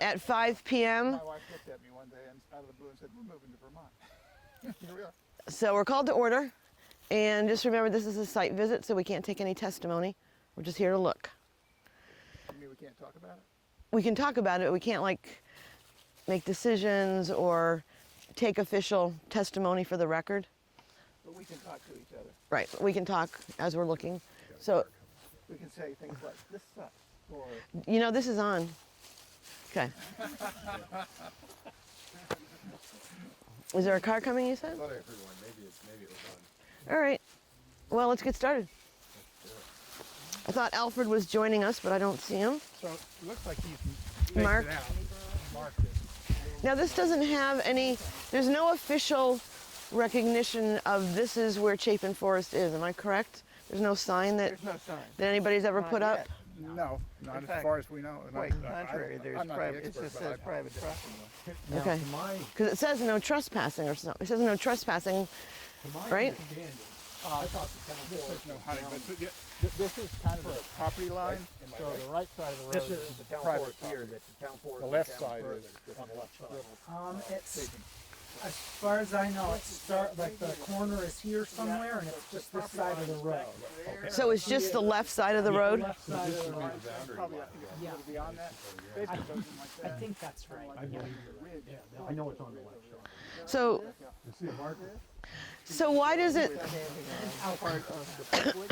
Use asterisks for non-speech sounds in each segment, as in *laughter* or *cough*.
at 5 p.m. My wife looked at me one day and out of the blue and said, "We're moving to Vermont." Here we are. So we're called to order. And just remember, this is a site visit, so we can't take any testimony. We're just here to look. You mean we can't talk about it? We can talk about it, but we can't like make decisions or take official testimony for the record. But we can talk to each other. Right, we can talk as we're looking. So, We can say things like, "This sucks," or you know, this is on. Okay. *laughs* Is there a car coming, you said? Thought I heard one. Maybe it's maybe it was on. All right. Well, let's get started. I thought Alfred was joining us, but I don't see him. so. It looks like he's it Mark. out. out. Marked it. Now, this doesn't have any, there's no official recognition of this is where Chapin Forest is. Am I correct? There's no sign that, There's no sign. that anybody's ever Not put yet. up? No, not In as fact, far as we know. and I- Quite I- contrary, I'm there's not the private. It expert, just but says I- private property. Now, Okay. to my, Because it says no trespassing or something. It says no trespassing. to my Right? understanding, I thought the town There's forest no was honey, down, but yeah, Th- This is kind of the property line. so the right side of the road, This this is is the town private forest here, property. that the town forest. The is left down side further is- On the left side. Um, it's, as far as I know, it's start, like the corner is here somewhere and it's just this side of the road. So it's just the left side of the road? Left side of the road. Probably, I think it's a little beyond that. Basically, it goes in like I that. think that's right. Like a ridge. I know it's on the left side. So, You see a marker? so why does it, Part of the Parkwood.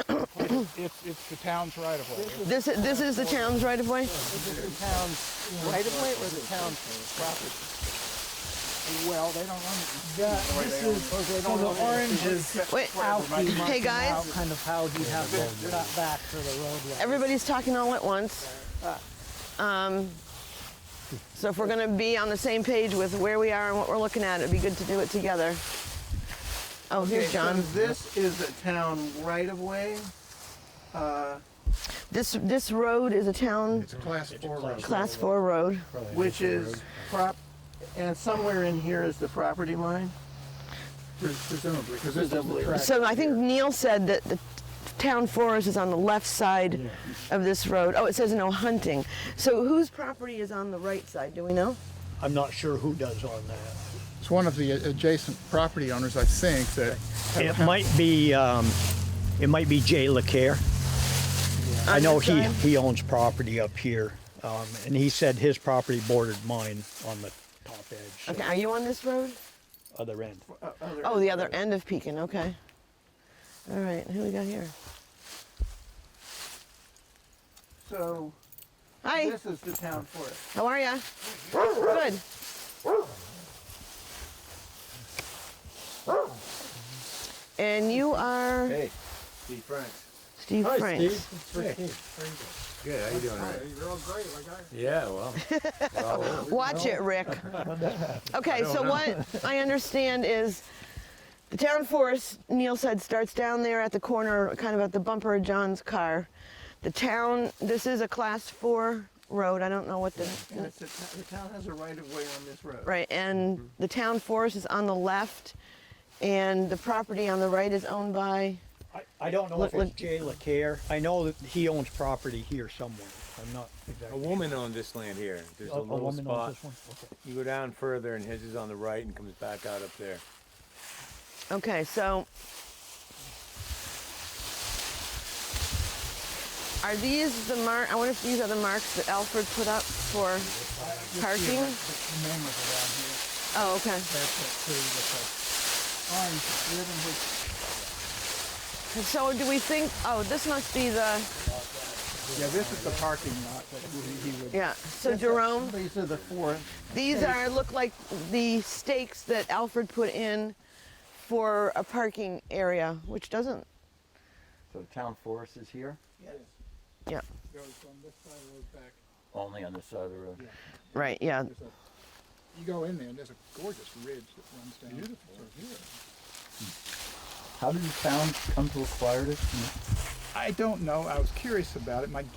It's, it's the town's right of way. this, this is the town's right of way? Is it the town's right of way or the town's property? Well, they don't own it. The- This is, so the orange is Wait, out. the hey marking out guys, Kind of how you have it cut back to the roadway. everybody's talking all at once. Um, so if we're going to be on the same page with where we are and what we're looking at, it'd be good to do it together. Oh, here's John. This is a town right of way. This this road is a town It's a class four road. class four road. which is prop, and somewhere in here is the property line. Presumably, because this is the Presumably. track. So I think Neil said that the town forest is on the left side of this road. Oh, it says no hunting. So whose property is on the right side? Do we know? I'm not sure who does on that. It's one of the adjacent property owners, I think, that It might be, um, it might be Jay LaCare. I know he, Understand. he owns property up here, um, and he said his property bordered mine on the top edge, Okay, are you on this road? so other end. Oh, the other end of Pekin. Okay. All right. Who we got here? So Hi. this is the town forest. How are ya? Good. And you are Hey, Steve Franks. Steve Franks. Good, how you doing? You're all great, like I. Yeah, well. well, *laughs* Watch it, Rick. *laughs* Okay, so what I understand is the town forest, Neil said, starts down there at the corner, kind of at the bumper of John's car. The town, this is a class four road. I don't know what And the, it's a t- the town has a right of way on this road. right, and the town forest is on the left, and the property on the right is owned by, I, I don't know if Look, it's look. Jay LaCare. I know that he owns property here somewhere. I'm not A exactly. woman owned this land here. There's a, A- a little woman spot. owns this one? Okay. You go down further, and his is on the right, and comes back out up there. okay, so. Are these the mark, I wonder if these are the marks that Alfred put up for parking? The name was around here. Oh, okay. That's it too, with the orange ribbon, which So do we think, oh, this must be the, yeah, this is the parking lot that he he would. yeah, so Jerome, These are the four. these are, look like the stakes that Alfred put in for a parking area, which doesn't, So the town forest is here, yeah, Goes from this side of the road back. only on this side of the road. right, yeah. there's a- you go in there and there's a gorgeous ridge that runs down. Beautiful. How did the town come to acquire this? I don't know. I was curious about it. My